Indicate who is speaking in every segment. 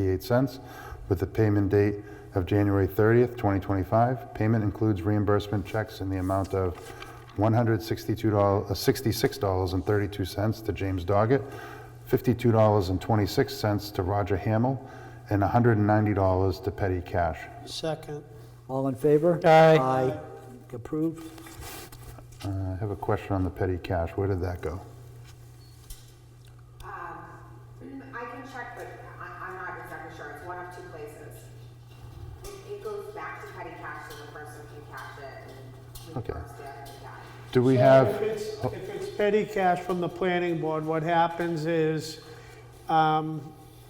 Speaker 1: $0.58 with the payment date of January 30th, 2025. Payment includes reimbursement checks in the amount of $162, uh, $66.32 to James Doggett, $52.26 to Roger Hamill, and $190 to petty cash.
Speaker 2: Second.
Speaker 3: All in favor?
Speaker 2: Aye.
Speaker 3: Aye. Approved.
Speaker 1: Uh, I have a question on the petty cash. Where did that go?
Speaker 4: Mm, I can check, but I, I'm not exactly sure, it's one of two places. It, it goes back to petty cash, so the person can cash it and
Speaker 1: Okay.
Speaker 4: reimburse the other guy.
Speaker 1: Do we
Speaker 2: If
Speaker 1: have,
Speaker 2: it's, if it's petty cash from the planning board, what happens is, um,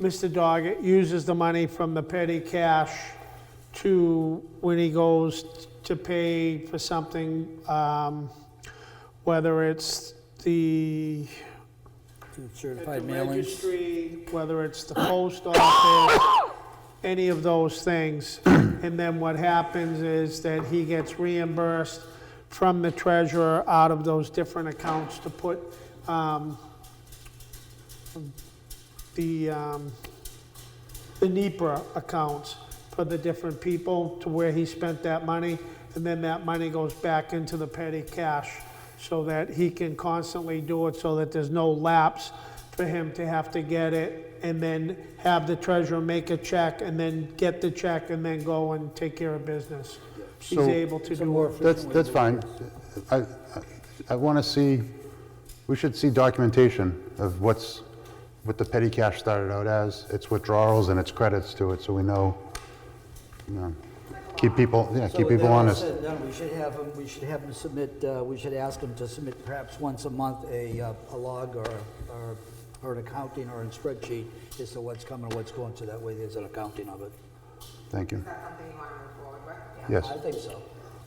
Speaker 2: Mr. Doggett uses the money from the petty cash to, when he goes to pay for something, um, whether it's the
Speaker 3: Certified
Speaker 2: at the
Speaker 3: mailings.
Speaker 2: registry, whether it's the post office, any of those things. And then what happens is that he gets reimbursed from the treasurer out of those different accounts to put um, the, um, the NEPA accounts for the different people to where he spent that money. And then that money goes back into the petty cash so that he can constantly do it so that there's no lapse for him to have to get it and then have the treasurer make a check and then get the check and then go and take care of business. He's
Speaker 1: So-
Speaker 2: able to do it.
Speaker 1: that's, that's fine. I, I want to see, we should see documentation of what's, what the petty cash started out as, its withdrawals and its credits to it, so we know, you know, keep people, yeah,
Speaker 3: So
Speaker 1: keep
Speaker 3: with
Speaker 1: people
Speaker 3: that all
Speaker 1: honest.
Speaker 3: said and done, We should have him, we should have him submit, uh, we should ask him to submit perhaps once a month a, uh, a log or, or, or an accounting or a spreadsheet as to what's coming, what's going, so that way there's an accounting of it.
Speaker 1: Thank you.
Speaker 4: Is that something you wanna move forward with? Yeah.
Speaker 1: Yes,
Speaker 3: I think so.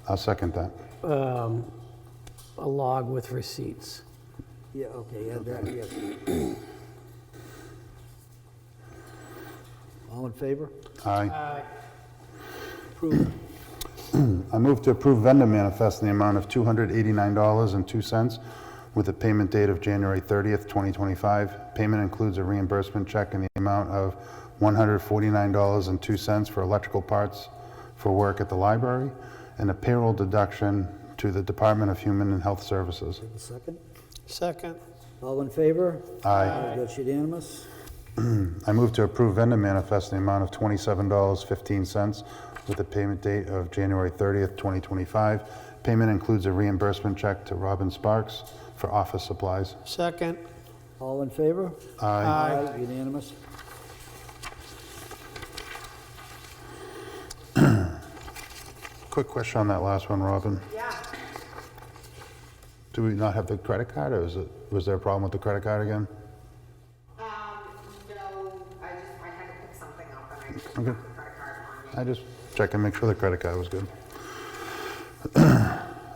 Speaker 1: I'll second that.
Speaker 5: um, a log with receipts.
Speaker 3: Yeah, okay, yeah, that, yes. All in favor?
Speaker 1: Aye.
Speaker 2: Uh,
Speaker 3: Approved.
Speaker 1: I move to approve vendor manifest in the amount of $289.02 with a payment date of January 30th, 2025. Payment includes a reimbursement check in the amount of $149.02 for electrical parts for work at the library and a payroll deduction to the Department of Human and Health Services.
Speaker 3: A second?
Speaker 2: Second.
Speaker 3: All in favor?
Speaker 1: Aye.
Speaker 3: That's unanimous.
Speaker 1: I move to approve vendor manifest in the amount of $27.15 with a payment date of January 30th, 2025. Payment includes a reimbursement check to Robin Sparks for office supplies.
Speaker 2: Second.
Speaker 3: All in favor?
Speaker 1: Aye.
Speaker 2: Aye.
Speaker 3: Unanimous.
Speaker 1: Quick question on that last one, Robin.
Speaker 4: Yeah,
Speaker 1: Do we not have the credit card, or is it, was there a problem with the credit card again?
Speaker 4: um, no, I just, I had to pick something up and I just have
Speaker 1: Okay.
Speaker 4: the credit card on me.
Speaker 1: I just check and make sure the credit card was good.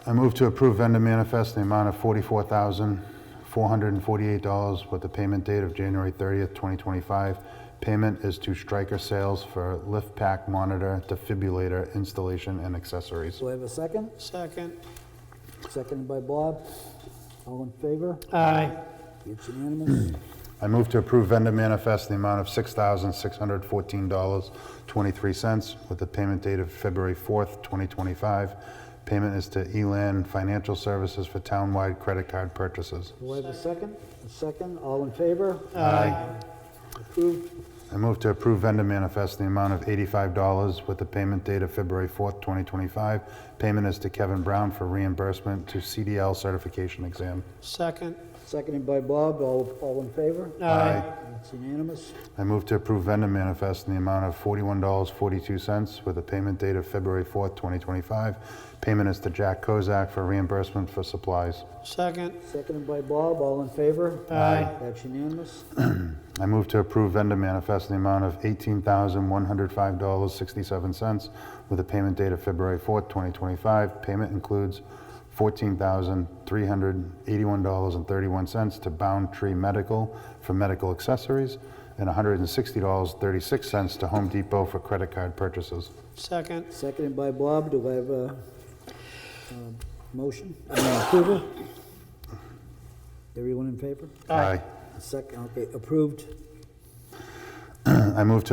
Speaker 1: I move to approve vendor manifest in the amount of $44,448 with the payment date of January 30th, 2025. Payment is to Stryker Sales for lift pack monitor, defibrillator installation, and accessories.
Speaker 3: Do I have a second?
Speaker 2: Second.
Speaker 3: Seconded by Bob. All in favor?
Speaker 2: Aye.
Speaker 3: It's unanimous.
Speaker 1: I move to approve vendor manifest in the amount of $6,614.23 with the payment date of February 4th, 2025. Payment is to Elan Financial Services for townwide credit card purchases.
Speaker 3: Do I have a second? A second, all in favor?
Speaker 1: Aye.
Speaker 3: Approved.
Speaker 1: I move to approve vendor manifest in the amount of $85 with the payment date of February 4th, 2025. Payment is to Kevin Brown for reimbursement to CDL certification exam.
Speaker 2: Second.
Speaker 3: Seconded by Bob, all, all in favor?
Speaker 1: Aye.
Speaker 3: It's unanimous.
Speaker 1: I move to approve vendor manifest in the amount of $41.42 with a payment date of February 4th, 2025. Payment is to Jack Kozak for reimbursement for supplies.
Speaker 2: Second.
Speaker 3: Seconded by Bob, all in favor?
Speaker 2: Aye.
Speaker 3: That's unanimous.
Speaker 1: I move to approve vendor manifest in the amount of $18,105.67 with a payment date of February 4th, 2025. Payment includes $14,381.31 to Bound Tree Medical for medical accessories and $160.36 to Home Depot for credit card purchases.
Speaker 2: Second.
Speaker 3: Seconded by Bob, do I have a, um, motion? I mean, Approval? Everyone in favor?
Speaker 1: Aye.
Speaker 3: Second, okay, approved.
Speaker 1: I move to